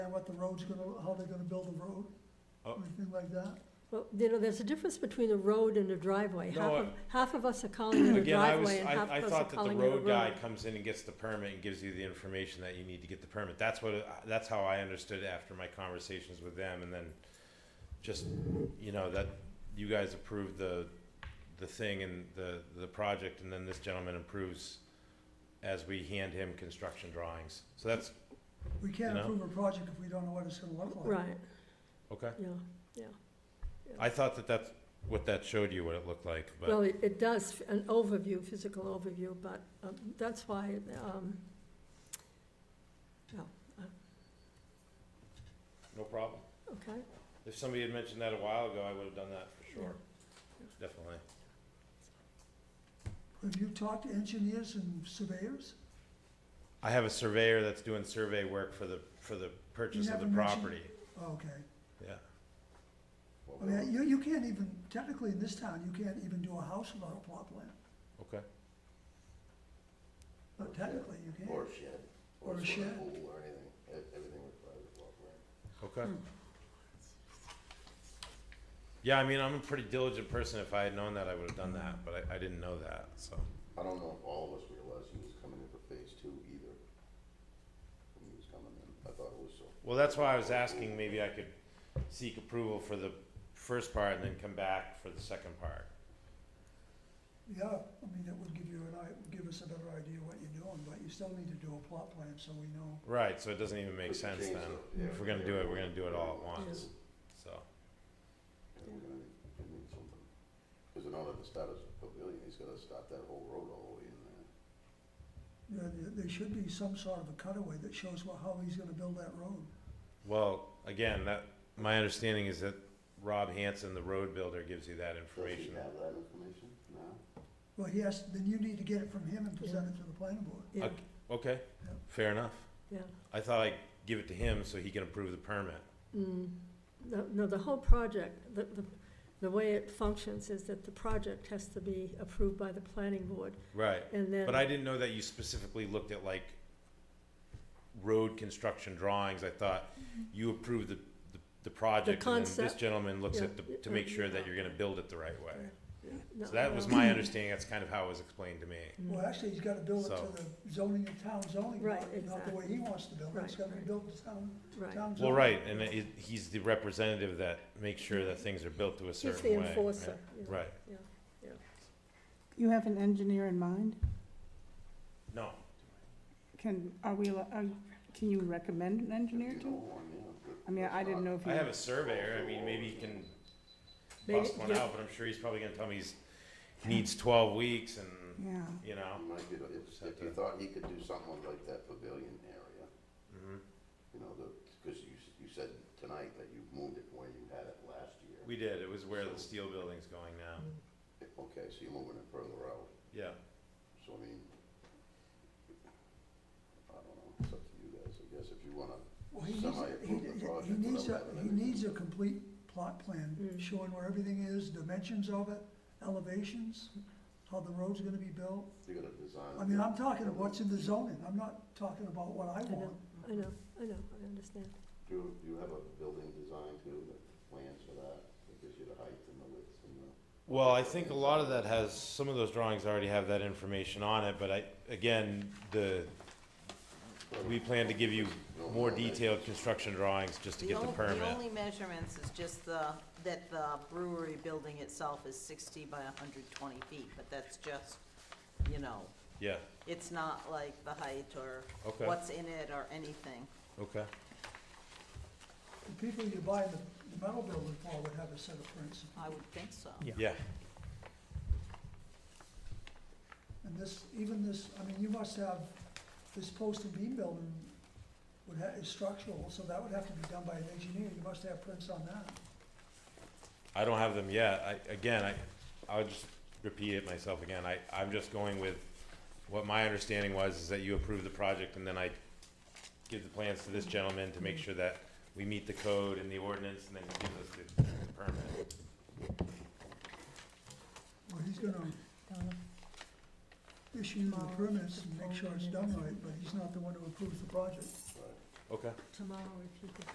what the road's gonna, how they're gonna build the road, Oh. anything like that. Well, you know, there's a difference between a road and a driveway. No, Half of, half of us are calling it a Again, I was, driveway and half I, I of us are thought that the calling it a road. road guy comes in and gets the permit and gives you the information that you need to get the permit. That's what, uh, that's how I understood after my conversations with them and then just, you know, that you guys approved the, the thing and the, the project and then this gentleman approves as we hand him construction drawings. So that's, We can't You know? approve a project if we don't know what it's gonna look like. Right, okay. yeah. I thought that that's what that showed you, what it looked like, Well, but, it, it does, f- an overview, physical overview, but, um, that's why, um, no problem. okay, If somebody had mentioned that a while ago, I would have done that for sure, definitely. Have you talked to engineers and surveyors? I have a surveyor that's doing survey work for the, for the purchase of the haven't mentioned- property, Oh, Okay, yeah. I mean, you, you can't even, technically in this town, you can't even do a house without a plot plan, Okay. but technically you can. Or a shed. Or a sort of shed. Pool or anything, E- everything requires a plot plan. Okay. Hmm. Yeah, I mean, I'm a pretty diligent person, if I had known that, I would have done that, but I, I didn't know that, so. I don't know if all of us realized he was coming in for phase two either. When he was coming in, I thought it was so. Well, that's why I was asking, maybe I could seek approval for the first part and then come back for the second part. Yeah, I mean, it would give you an, i- give us a better idea what you're doing, but you still need to do a plot plan so we know. Right, so it doesn't even make But you sense changed then. it, yeah. If we're gonna do it, we're gonna do it all at once, so. Yeah, we're gonna need, we need something. Cause in order to start his pavilion, he's gotta start that whole road all the way in there. Yeah, there, there should be some sort of a cutaway that shows what, how he's gonna build that road. Well, again, that, my understanding is that Rob Hanson, the road builder, gives you that Does he information. have that information now? Well, he has, then you need to get it from him and present it to the planning board. yeah, Okay. Okay, Yeah. fair enough. yeah. I thought I'd give it to him so he can approve the permit. Mm, No, no, the whole project, the, the, the way it functions is that the project has to be approved by the planning board, Right, and then. but I didn't know that you specifically looked at like road construction drawings. I thought you approved the, the, the project and then this Mm-hmm. concept. gentleman looks Yeah. at the, to make sure that you're gonna build it the right way. no, So that was no. my understanding. That's kind of how it was explained to me. Mm. Well, actually, he's gotta build it to So- the zoning, the town zoning, Right, not, not the way he wants to build it, it's Right, gotta be right. built to town, Right. town zoning. Well, right, and it, he's the representative that makes sure that things are built to a Mm-hmm. He's certain way. the right? enforcer, yeah. Right, You have an engineer in mind? no, Can, are we, allo- are, can you recommend an engineer You to? know, I mean, but I mean, it's I didn't not- know if I you. have a surveyor, I mean, maybe he can bust Maybe- one yeah. out, but I'm sure he's probably gonna tell me he's, he needs twelve weeks and, Yeah, you know. You might get, if, if you thought he could do something like that pavilion area, Mhm. you know, the, cause you, s- you said tonight that you moved it where you had it last year. We did, it was where the steel building's going now, Okay, so you're moving it further out, yeah. so I mean, I don't know, it's up to you guys, I guess, if you wanna, Well, he needs, Somebody he, approve the project he needs a, without having he any- needs a complete plot plan Mm. showing where everything is, dimensions of it, elevations, how the road's gonna be built. you're gonna design. I mean, I'm talking of what's in the zoning, I'm not talking about what I I know, want. I know, I know, I understand. Do, you- do you have a building design too, the plans for that, that gives you the height and the width and the. Well, I think a lot of that has, some of those drawings already have that information on it, but I, again, the, we plan to give you more detailed construction drawings just to The get the on- permit. The only measurements is just the, that the brewery building itself is sixty by hundred twenty feet, but that's just, you know, Yeah, it's not like the height or Okay. what's in it or anything. okay, The people you buy the, the metal building for would have a set of prints, I would think so. yeah. and this, even this, I mean, you must have, this post and beam building would ha is structural, so that would have to be done by an engineer, you must have prints on that. I don't have them yet. I, again, I, I'll just repeat it myself again. I, I'm just going with what my understanding was, is that you approved the project and then I give the plans to this gentleman to make sure that we meet the code and the ordinance and then he gives us the- the permit. Well, he's gonna issue the permits and make sure it's done right, but he's not the one who approves the project. Right. Okay. tomorrow if you could